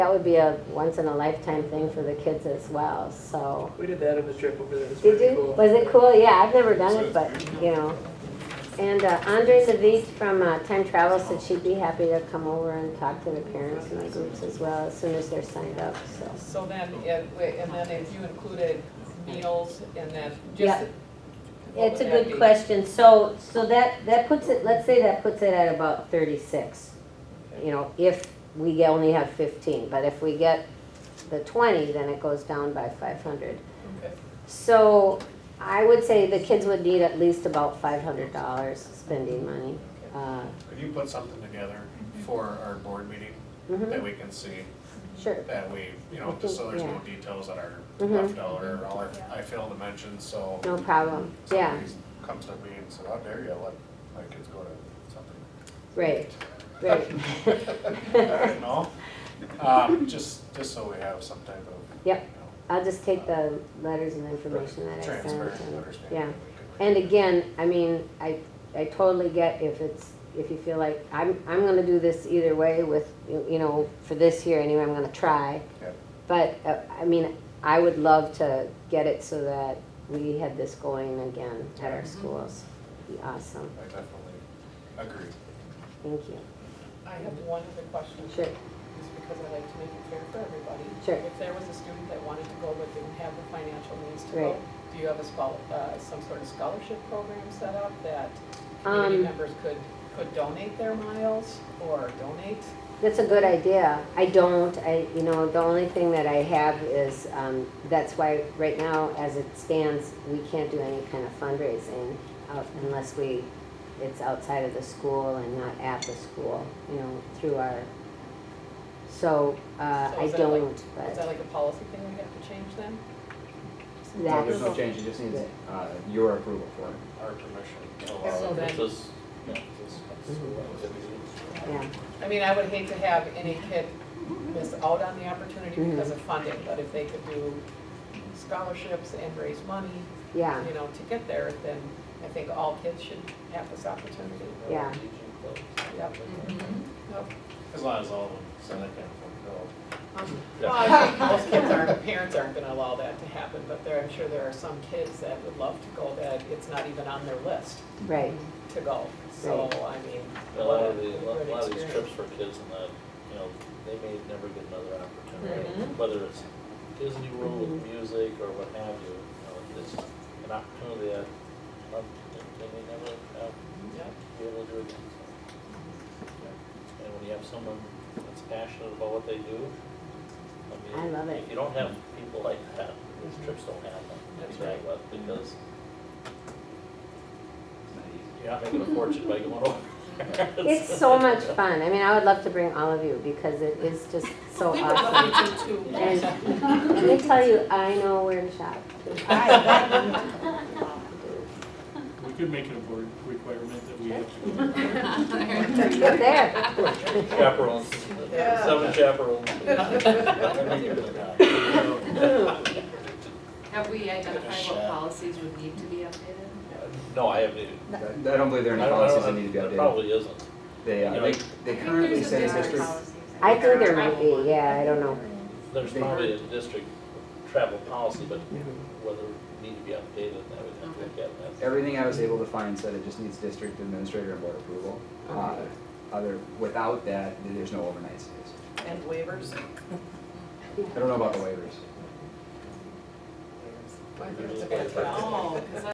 That would be a once in a lifetime thing for the kids as well, so. We did that on the trip over there. It's Did pretty you? cool. Was it cool? Yeah, I've never done it, but, you know. And uh, Andre Levite from uh, Time Travel said she'd be happy to come over and talk to the parents and the groups as well as soon as they're signed up, so. So then, if- and then if you included meals and then just. Yeah. what It's a would that good be? question. So, so that, that puts it, let's say that puts it at about thirty-six. You know, if we only have fifteen, but if we get the twenty, then it goes down by five hundred. Okay. So I would say the kids would need at least about five hundred dollars spending money. Uh, If you put something together for our board meeting that mhm, we can see, Sure, that we, you know, just so there's no details that are Mhm. left out or all our- I fail to mention, so. no problem. Yeah, somebody Comes to me and said, how dare you let my kids go to something? right, right. I don't know. Um, just, just so we have some type of. Yep. you know, I'll just take the letters and information that I sent. Transparent and- understanding. Yeah. that we can- And again, I mean, I, I totally get if it's, if you feel like, I'm, I'm gonna do this either way with, you you know, for this year anyway, I'm gonna try. Yeah. But, uh, I mean, I would love to get it so that we had this going again at our schools. Be awesome, I definitely agree. thank you. I have one other question. Sure, Just because I like to make it fair for everybody. Sure. If there was a student that wanted to go but didn't have the financial means to go, Right. do you have a spol, uh, some sort of scholarship program set up that community um, members could, could donate their miles or donate? that's a good idea. I don't, I, you know, the only thing that I have is, um, that's why right now, as it stands, we can't do any kind of fundraising out unless we it's outside of the school and not at the school, you know, through our, so, uh, So I is that like- don't, Is that but like a policy thing we have to change then? No, there's no that's, change, it just needs uh, your approval for it. Our permission. to allow- So then, mm-hmm, yeah, I mean, I would hate to have any kid miss out on the opportunity Mhm. because of funding, but if they could do scholarships and raise money, yeah, you know, to get there, then I think all kids should have this opportunity. yeah, Yep. Yep. As long as all of them, so they can fulfill. Um, Well, I think most kids aren't, parents aren't gonna allow that to happen, but there, I'm sure there are some kids that would love to go that it's not even on their list right, to go. So, I mean, A what lot a of the, a good lot- a lot of these experience. trips for kids and that, you know, they may never get another opportunity, Mhm. whether it's Disney World with music or what have you, you know, it's an opportunity that, um, they may never have, Yep. be able to do again. so. And when you have someone that's passionate about what they do, I I mean, love it. if you don't have people like that, these trips don't happen. That's You know, right. but Because you're not making a fortune by going over. it's so much fun, I mean, I would love to bring all of you, because it is just so awesome. And let me tell you, I know where to shop. We could make it a board requirement that we have to go. Up there, Chaperones, Yeah. seven chaperones. Have we identified what policies would need to be updated? No, I haven't. even- I I don't believe there are I any don't- I policies that don't- need to be there updated. Probably isn't. They, uh, they, they currently say There's the a district, policies. I think there might be, yeah, I don't know, There's probably a district travel policy, but whether it need to be updated, I would have to look at that. everything I was able to find said it just needs district administrator and board approval. Uh, Other, without that, then there's no overnight stays. And waivers. I don't know about the waivers. Waivers are gonna- Oh, 'cause